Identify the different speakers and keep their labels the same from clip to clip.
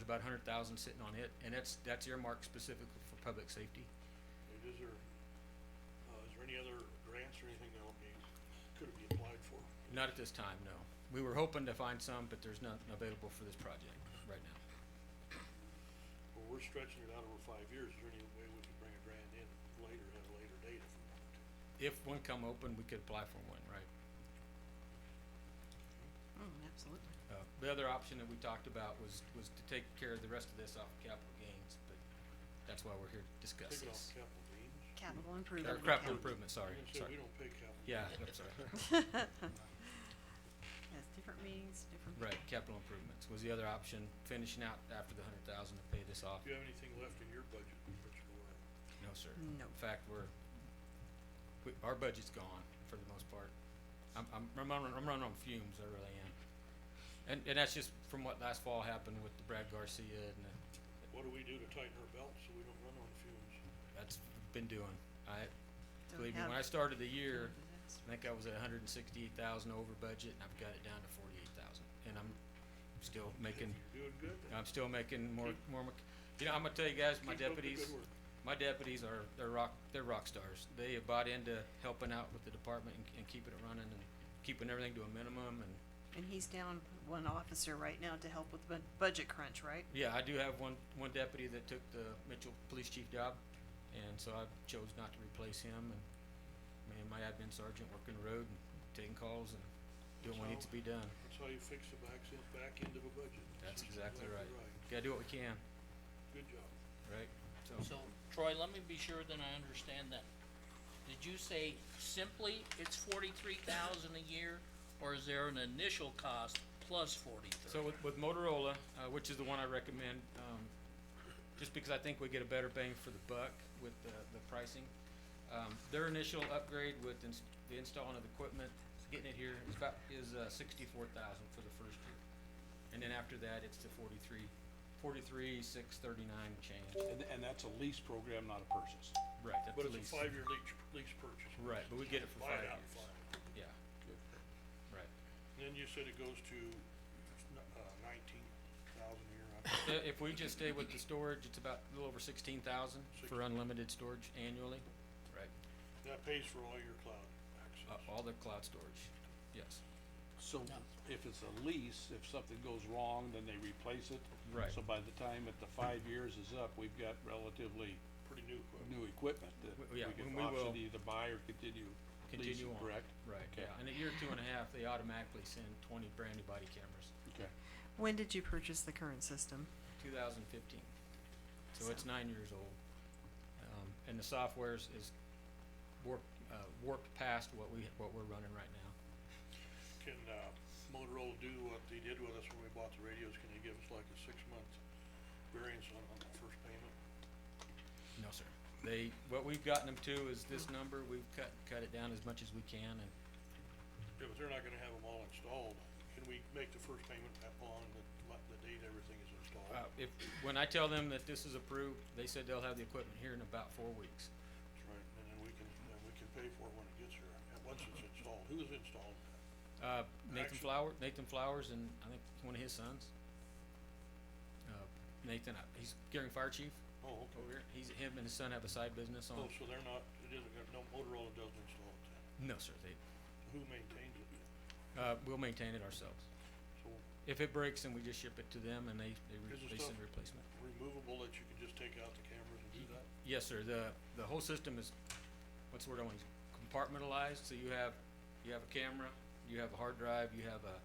Speaker 1: about a hundred thousand sitting on it, and that's, that's earmarked specifically for public safety.
Speaker 2: And is there, uh, is there any other grants or anything that'll be, could it be applied for?
Speaker 1: Not at this time, no. We were hoping to find some, but there's nothing available for this project right now.
Speaker 2: Well, we're stretching it out over five years, is there any way we could bring a grant in later, at a later date if we want to?
Speaker 1: If one come open, we could apply for one, right?
Speaker 3: Oh, absolutely.
Speaker 1: Uh, The other option that we talked about was, was to take care of the rest of this off of capital gains, but that's why we're here to discuss
Speaker 2: Take it off
Speaker 1: this.
Speaker 2: capital gains?
Speaker 3: Capital
Speaker 1: Or
Speaker 3: improvement.
Speaker 1: capital
Speaker 3: account.
Speaker 1: improvement, sorry,
Speaker 2: You said
Speaker 1: sorry.
Speaker 2: we don't pay capital.
Speaker 1: Yeah, I'm sorry.
Speaker 3: Yes, different meetings, different.
Speaker 1: Right, capital improvements was the other option, finishing out after the hundred thousand to pay this off.
Speaker 2: Do you have anything left in your budget, Richard, or?
Speaker 1: No, sir.
Speaker 3: No.
Speaker 1: In fact, we're, we, our budget's gone for the most part. I'm, I'm, I'm running, I'm running on fumes, I really am. And, and that's just from what last fall happened with the Brad Garcia and the,
Speaker 2: What do we do to tighten our belts so we don't run on fumes?
Speaker 1: that's been doing. I,
Speaker 3: Don't
Speaker 1: believe me,
Speaker 3: have
Speaker 1: when I started the year,
Speaker 3: disaster.
Speaker 1: I think I was at hundred and sixty-eight thousand over budget and I've got it down to forty-eight thousand. And I'm still making,
Speaker 2: You're Doing good?
Speaker 1: I'm still making more, more, mc- you know, I'm gonna tell you guys, my
Speaker 2: Keep up the
Speaker 1: deputies.
Speaker 2: good work.
Speaker 1: My deputies are, they're rock, they're rock stars. They have bought into helping out with the department and, and keeping it running and keeping everything to a minimum and,
Speaker 3: And he's down one officer right now to help with the bud- budget crunch, right?
Speaker 1: yeah, I do have one, one deputy that took the Mitchell Police Chief job, and so I chose not to replace him, and me and my admin sergeant working the road and taking calls and doing what needs to be done.
Speaker 2: That's how you fix the back, end- back end of a budget.
Speaker 1: That's exactly right. Gotta do what we can,
Speaker 2: Good job.
Speaker 1: right? So,
Speaker 4: So Troy, let me be sure that I understand that. Did you say simply it's forty-three thousand a year, or is there an initial cost plus forty-three?
Speaker 1: so with, with Motorola, uh, which is the one I recommend, um, just because I think we get a better bang for the buck with the, the pricing. Um, their initial upgrade with ins- the installing of the equipment, getting it here is about, is, uh, sixty-four thousand for the first year. And then after that, it's to forty-three, forty-three, six thirty-nine change.
Speaker 5: And, and that's a lease program, not a purchase.
Speaker 1: Right, that's
Speaker 2: But
Speaker 1: the
Speaker 2: it's
Speaker 1: lease.
Speaker 2: a five-year lease, lease purchase.
Speaker 1: Right, but we get it for
Speaker 2: Buy
Speaker 1: five
Speaker 2: it out,
Speaker 1: years.
Speaker 2: five.
Speaker 1: Yeah, right.
Speaker 2: Then you said it goes to uh, nineteen thousand a year, I
Speaker 1: I- Uh, If we just stay with the storage, it's about a little over sixteen thousand for unlimited storage annually. Right.
Speaker 2: that pays for all your cloud
Speaker 1: Uh,
Speaker 2: access.
Speaker 1: all the cloud storage, yes.
Speaker 5: So if it's a lease, if something Uh, goes wrong, then they replace it.
Speaker 1: Right.
Speaker 5: So by the time that the five years is up, we've got relatively
Speaker 2: Pretty new equipment.
Speaker 5: new equipment that
Speaker 1: W-
Speaker 5: we
Speaker 1: yeah,
Speaker 5: can
Speaker 1: when we will
Speaker 5: option to either buy or continue
Speaker 1: Continue
Speaker 5: leasing,
Speaker 1: on.
Speaker 5: correct?
Speaker 1: Right,
Speaker 5: Okay.
Speaker 1: yeah, in a year, two and a half, they automatically send twenty brand new body cameras,
Speaker 5: Okay,
Speaker 3: When did you purchase the current system?
Speaker 1: two thousand fifteen. So it's
Speaker 3: So-
Speaker 1: nine years old. Um, and the software's is warped, uh, warped past what we, what we're running right now.
Speaker 2: Can uh, Motorola do what they did with us when we bought the radios? Can they give us like a six-month variance on, on the first payment?
Speaker 1: No, sir. They, what we've gotten them to is this number, we've cut, cut it down as much as we can and
Speaker 2: Yeah, but they're not gonna have them all installed. Can we make the first payment upon the, like, the date everything is installed?
Speaker 1: Uh, if, when I tell them that this is approved, they said they'll have the equipment here in about four weeks.
Speaker 2: That's right, and then we can, then we can pay for it when it gets here, and once it's installed. Who is installing that?
Speaker 1: Uh, Nathan
Speaker 2: Actually-
Speaker 1: Flower, Nathan Flowers and I think one of his sons. Uh, Nathan, uh, he's Gearing Fire Chief
Speaker 2: Oh, okay.
Speaker 1: over here. He's, him and his son have a side business on.
Speaker 2: Oh, so they're not, it isn't, gonna- no Motorola doesn't install it then.
Speaker 1: No, sir, they,
Speaker 2: Who maintains it then?
Speaker 1: uh, we'll maintain it ourselves.
Speaker 2: So
Speaker 1: If it breaks, then we just ship it to them and they, they, re-
Speaker 2: Is the
Speaker 1: they
Speaker 2: stuff-
Speaker 1: send replacement.
Speaker 2: removable that you can just take out the cameras and do that?
Speaker 1: Yes, sir, the, the whole system is, what's the word I want, to use? compartmentalized, so you have, you have a camera, you have a hard drive, you have a,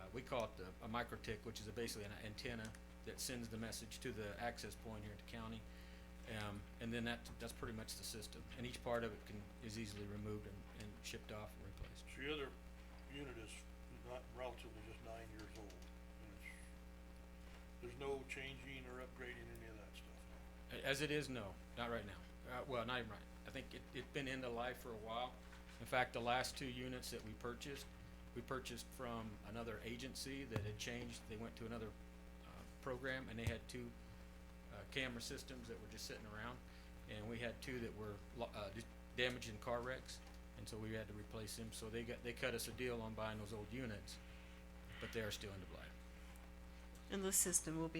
Speaker 1: uh, we call it the, a microtik, which is a- basically an antenna that sends the message to the access point here at the county. Um, and then that, that's pretty much the system, and each part of it can, is easily removed and, and shipped off and replaced.
Speaker 2: So your other unit is not relatively just nine years old, and it's, there's no changing or upgrading any of that stuff.
Speaker 1: A- As it is, no, not right now. Uh, well, not even right. I think it, it's been end of life for a while. In fact, the last two units that we purchased, we purchased from another agency that had changed. They went to another, uh, program and they had two, uh, camera systems that were just sitting around. And we had two that were, lo- uh, just damaged in car wrecks. And so we had to replace them. So they got, they cut us a deal on buying those old units, but they are still end of life.
Speaker 3: And this system will be